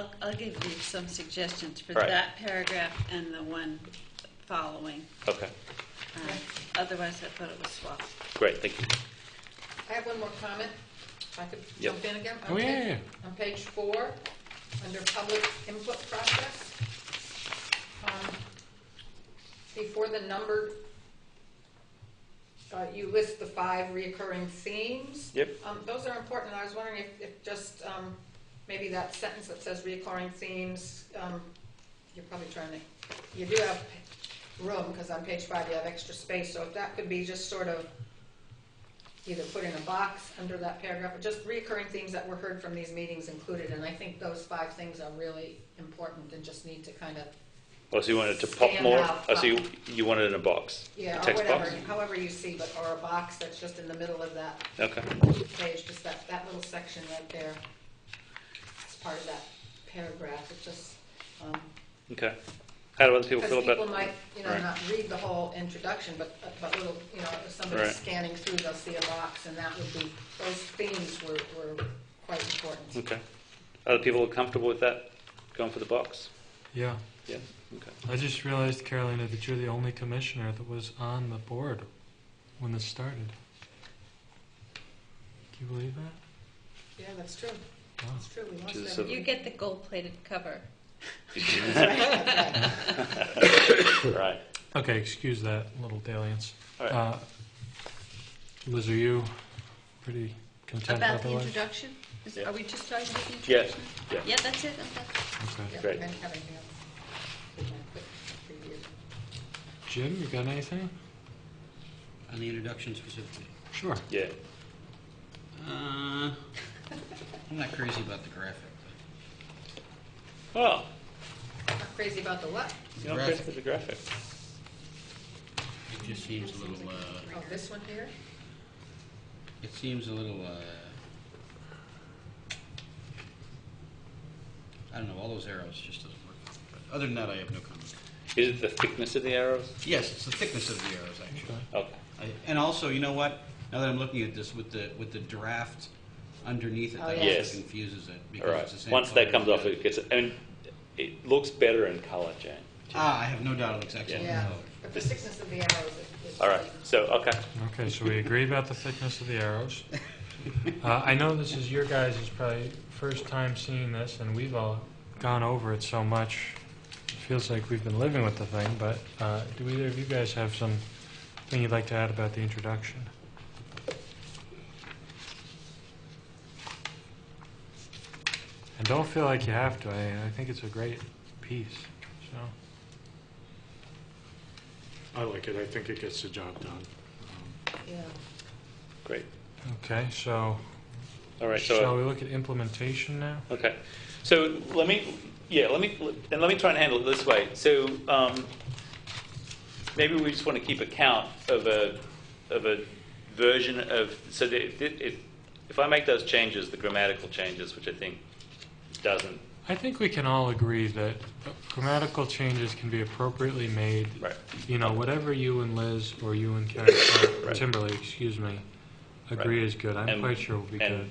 I'll- I'll give you some suggestions for Right. that paragraph and the one following. Okay, Um, Otherwise, I thought it was swapped. great, thank you. I have one more comment, if I could Yep. jump in again. Oh, On yeah, page- yeah, On page four, under public input process, um, before the numbered, uh, you list the five reoccurring themes. Yep. Um, Those are important, and I was wondering if, if just, um, maybe that sentence that says reoccurring themes, um, you're probably trying to, you do have room, because on page five you have extra space, so if that could be just sort of either put in a box under that paragraph, or just reoccurring themes that were heard from these meetings included, and I think those five things are really important and just need to kind of, Oh, so you wanted to pop Stand more? out. Oh, so you, you wanted it in a box? A yeah, or text box? whatever, however you see, but, or a box that's just in the middle of that Okay, page, just that, that little section right there, as part of that paragraph, it just, um, okay. How do other people feel Because people about? might, you know, Right. not read the whole introduction, but, but little, you know, if somebody's Right. scanning through, they'll see a box, and that would be, those themes were, were quite important. Okay. Other people comfortable with that, going for the box? yeah. Yeah, okay. I just realized, Carolina, that you're the only commissioner that was on the board when this started. Do you believe that? Yeah, that's true, Wow. that's true, we lost Jesus, that. so- You get the gold-plated cover. Right, Right, Okay, excuse that little dalliance. all right. Uh, Liz, are you pretty content About the otherwise? introduction? Is- Yeah. Are we just talking about the Yeah, introduction? yeah. Yeah, that's it. I'm done. Okay. Yeah, Great. I didn't have anything else. Didn't have a quick review. Jim, you got anything? On the introduction specifically. Sure. Yeah, Uh, I'm not crazy about the graphic. oh, Not crazy about the what? you're not Graphic. good for the graphic. It just seems a little, uh, Oh, this one here? it seems a little, uh, I don't know, all those arrows just doesn't work. But Other than that, I have no comment. Is it the thickness of the arrows? Yes, it's the thickness of the arrows, actually. Okay, I- And also, you know what? Now that I'm looking at this with the, with the draft underneath it, Oh, that yeah. also Yes. confuses it. all because it's the right. same Once that color as comes off, the it gets, I mean, it looks better in color, Jane. other. Ah, I have no doubt it looks excellent. Yeah, No. but the thickness of the arrows is. is- All right, so, okay, Okay, so we agree about the thickness of the arrows. Uh, I know this is your guys' probably first time seeing this, and we've all gone over it so much. It feels like we've been living with the thing, but uh, do either of you guys have some thing you'd like to add about the introduction? And don't feel like you have to. I, I think it's a great piece. So, I like it. I think it gets the job done. Um, Yeah. great. okay, so All right, so. shall we look at implementation now? Okay. So let me, yeah, let me, and let me try and handle it this way. So um, maybe we just want to keep account of a, of a version of, so that if, if, if I make those changes, the grammatical changes, which I think doesn't, I think we can all agree that grammatical changes can be appropriately made. Right. You know, whatever you and Liz, or you and Karen, or Right. Timberlake, excuse me, agree Right. is good. I'm And- quite sure we'll be and good.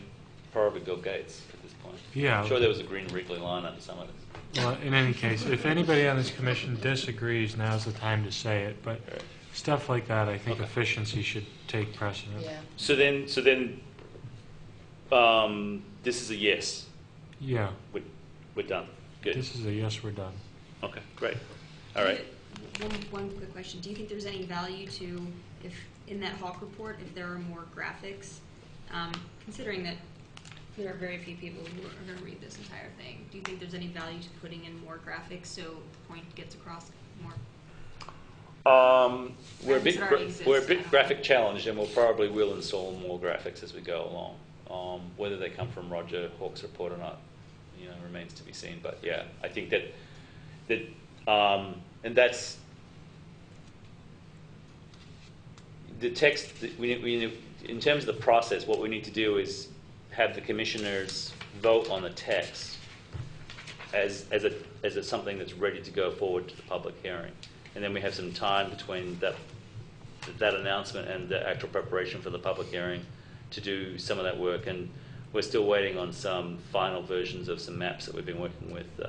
probably Bill Gates at this point. Yeah. I'm sure there was a green wrinkly line under some of this. Well, in any case, if anybody on this commission disagrees, now's the time to say it. But Right. stuff like that, I think Okay. efficiency should take precedent. Yeah, So then, so then, um, this is a yes. Yeah, We're, we're done. Good. this is a yes, we're done. Okay, great. All right. One, one quick question. Do you think there's any value to, if, in that Hawk report, if there are more graphics? Um, considering that there are very few people who are gonna read this entire thing, do you think there's any value to putting in more graphics so the point gets across more? Um, we're a Graphics bit, that gra- already exist, we're a I bit don't- graphic challenged, and we'll probably will install more graphics as we go along. Um, whether they come from Roger Hawk's report or not, you know, remains to be seen. But yeah, I think that that um, and that's the text. that We, we in terms of the process, what we need to do is have the commissioners vote on the text as, as, a, as a, something that's ready to go forward to the public hearing. And then we have some time between that, that announcement and the actual preparation for the public hearing to do some of that work. And We're still waiting on some final versions of some maps that we've been working with uh,